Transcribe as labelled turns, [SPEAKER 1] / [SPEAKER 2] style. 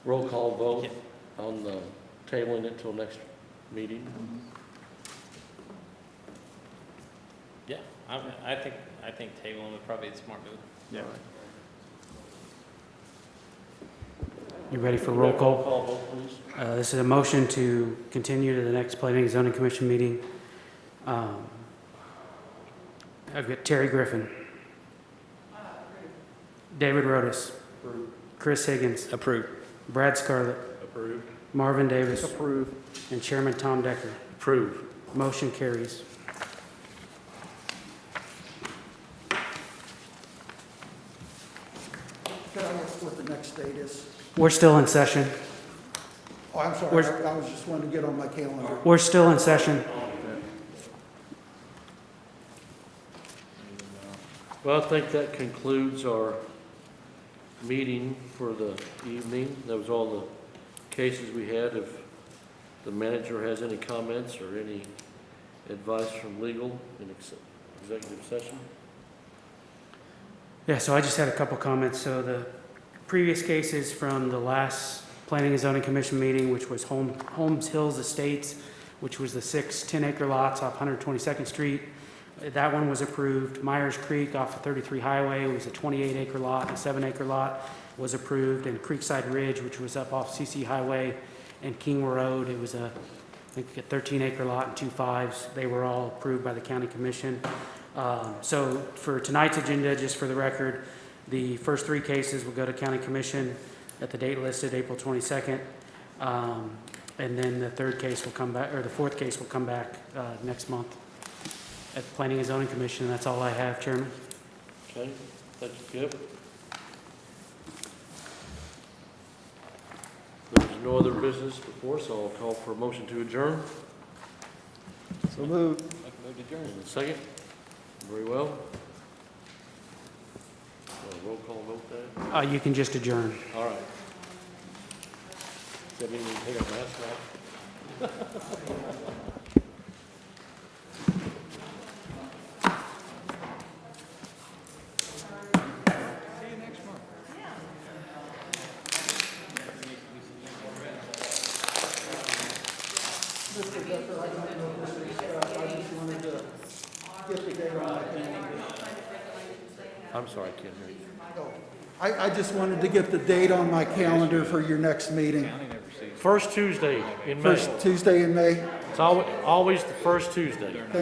[SPEAKER 1] Roll call vote
[SPEAKER 2] Yeah.
[SPEAKER 1] on the tabling it till next meeting?
[SPEAKER 2] Yeah, I, I think, I think tabling would probably be a smart move.
[SPEAKER 3] Yeah.
[SPEAKER 4] You ready for roll call?
[SPEAKER 1] vote, please.
[SPEAKER 4] Uh, This is a motion to continue to the next Planning and Zoning Commission meeting. Um, I've got Terry Griffin. David Rotis. Chris Higgins.
[SPEAKER 2] Approved.
[SPEAKER 4] Brad Scarlett.
[SPEAKER 1] Approved.
[SPEAKER 4] Marvin Davis.
[SPEAKER 3] Approve.
[SPEAKER 4] And Chairman Tom Decker.
[SPEAKER 1] Approved.
[SPEAKER 4] Motion carries.
[SPEAKER 5] Can I ask what the next date is?
[SPEAKER 4] We're still in session.
[SPEAKER 5] Oh, I'm sorry,
[SPEAKER 4] Where's-
[SPEAKER 5] I I was just wanting to get on my calendar.
[SPEAKER 4] We're still in session.
[SPEAKER 1] Well, I think that concludes our meeting for the evening. That was all the cases we had. If the manager has any comments or any advice from legal in ex- executive session?
[SPEAKER 4] Yeah, so I just had a couple comments. So the previous cases from the last Planning and Zoning Commission meeting, which was Holm- Holmes Hills Estates, which was the six 10-acre lots off 122nd Street. Uh, That one was approved. Myers Creek off of 33 Highway was a 28-acre lot, a seven-acre lot was approved. And Creekside Ridge, which was up off CC Highway and King Road, it was a, I think, a 13-acre lot and two fives. They were all approved by the county commission. Um, So for tonight's agenda, just for the record, the first three cases will go to county commission at the date listed, April 22nd. Um, And then the third case will come back, or the fourth case will come back uh, next month at the Planning and Zoning Commission. That's all I have, Chairman.
[SPEAKER 1] Okay, thank you, Kip. There's no other business before, so I'll call for a motion to adjourn.
[SPEAKER 3] So moved.
[SPEAKER 2] Move to adjourn.
[SPEAKER 1] And a second? Very well. Uh, Roll call vote there.
[SPEAKER 4] Uh, You can just adjourn.
[SPEAKER 1] All right. Does that mean we take our mask off?
[SPEAKER 5] Mr. Decker, I don't know this is, uh, I just wanted to get the date on my calendar.
[SPEAKER 1] I'm sorry, I can't hear you.
[SPEAKER 5] Oh, I, I just wanted to get the date on my calendar for your next meeting.
[SPEAKER 1] First Tuesday in May.
[SPEAKER 5] First Tuesday in May?
[SPEAKER 1] It's always, always the first Tuesday.